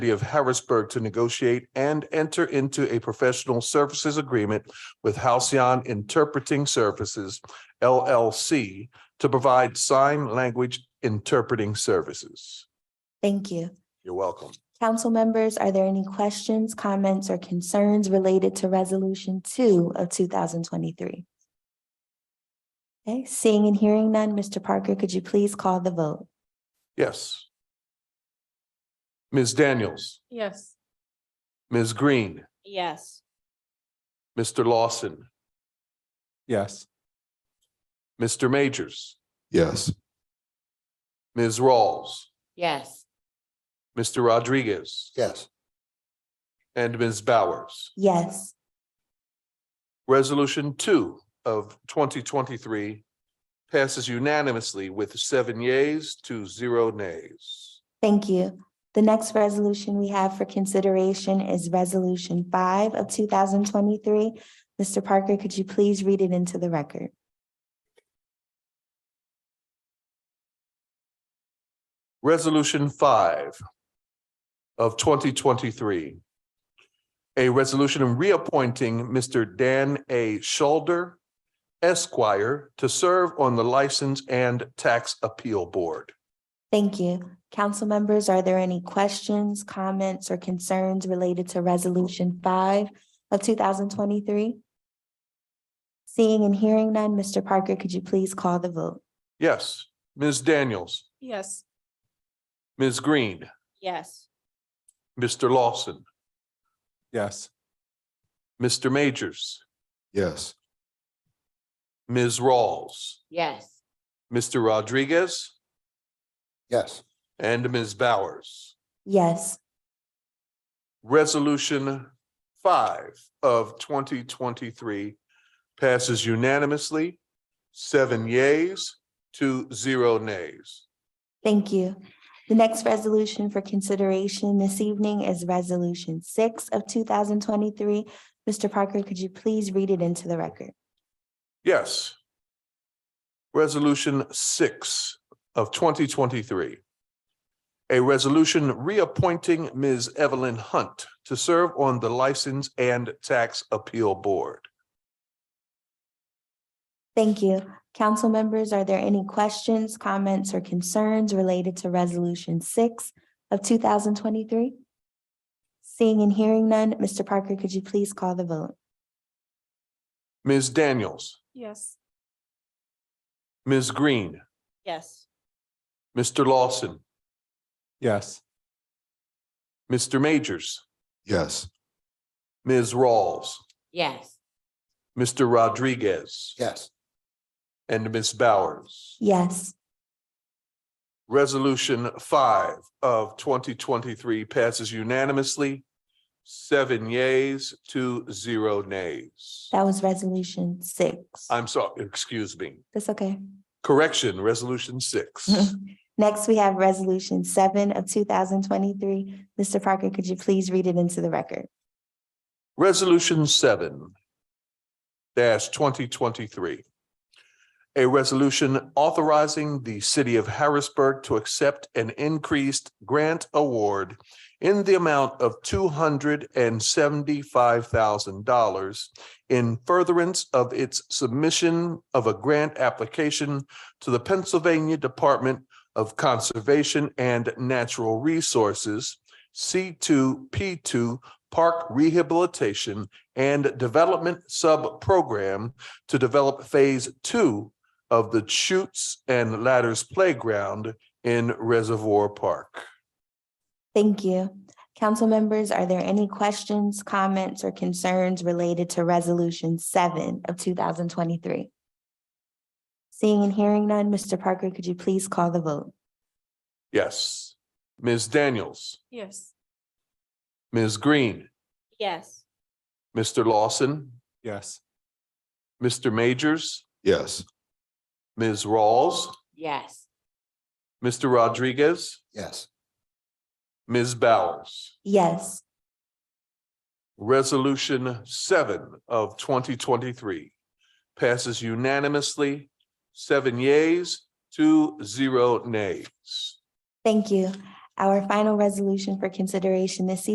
City of Harrisburg to negotiate and enter into a professional services agreement with Halcyon Interpreting Services LLC to provide sign language interpreting services. Thank you. You're welcome. Council members, are there any questions, comments, or concerns related to Resolution two of two thousand twenty-three? Okay, seeing and hearing none, Mr. Parker, could you please call the vote? Yes. Ms. Daniels, Yes. Ms. Green, Yes. Mr. Lawson, Yes. Mr. Majors, Yes. Ms. Rawls, Yes. Mr. Rodriguez, Yes. and Ms. Bowers. Yes, Resolution two of twenty twenty-three passes unanimously with seven yeas to zero nays. thank you. The next resolution we have for consideration is Resolution five of two thousand twenty-three. Mr. Parker, could you please read it into the record? Resolution five of twenty twenty-three. A resolution reappointing Mr. Dan A. Schulder Esquire to serve on the License and Tax Appeal Board. Thank you. Council members, are there any questions, comments, or concerns related to Resolution five of two thousand twenty-three? Seeing and hearing none, Mr. Parker, could you please call the vote? Yes, Ms. Daniels, Yes. Ms. Green, Yes. Mr. Lawson, Yes. Mr. Majors, Yes. Ms. Rawls. Yes. Mr. Rodriguez Yes. and Ms. Bowers. Yes, Resolution five of twenty twenty-three passes unanimously, seven yeas to zero nays. thank you. The next resolution for consideration this evening is Resolution six of two thousand twenty-three. Mr. Parker, could you please read it into the record? Yes. Resolution six of twenty twenty-three. A resolution reappointing Ms. Evelyn Hunt to serve on the License and Tax Appeal Board. Thank you. Council members, are there any questions, comments, or concerns related to Resolution six of two thousand twenty-three? Seeing and hearing none, Mr. Parker, could you please call the vote? Ms. Daniels, Yes. Ms. Green, Yes. Mr. Lawson, Yes. Mr. Majors, Yes. Ms. Rawls, Yes. Mr. Rodriguez, Yes. and Ms. Bowers. Yes, Resolution five of twenty twenty-three passes unanimously, seven yeas to zero nays. that was Resolution six. I'm sorry, excuse me, That's okay. correction, resolution six. Next, we have Resolution seven of two thousand twenty-three. Mr. Parker, could you please read it into the record? Resolution seven dash twenty twenty-three. A resolution authorizing the city of Harrisburg to accept an increased grant award in the amount of two hundred and seventy-five thousand dollars in furtherance of its submission of a grant application to the Pennsylvania Department of Conservation and Natural Resources, C two P two Park Rehabilitation and Development Sub-Program to develop Phase Two of the Chutes and Ladders Playground in Reservoir Park. Thank you. Council members, are there any questions, comments, or concerns related to Resolution seven of two thousand twenty-three? Seeing and hearing none, Mr. Parker, could you please call the vote? Yes. Ms. Daniels, Yes. Ms. Green, Yes. Mr. Lawson, Yes. Mr. Majors, Yes. Ms. Rawls, Yes. Mr. Rodriguez, Yes. Ms. Bowers. Yes, Resolution seven of twenty twenty-three passes unanimously, seven yeas to zero nays. thank you. Our final resolution for consideration this evening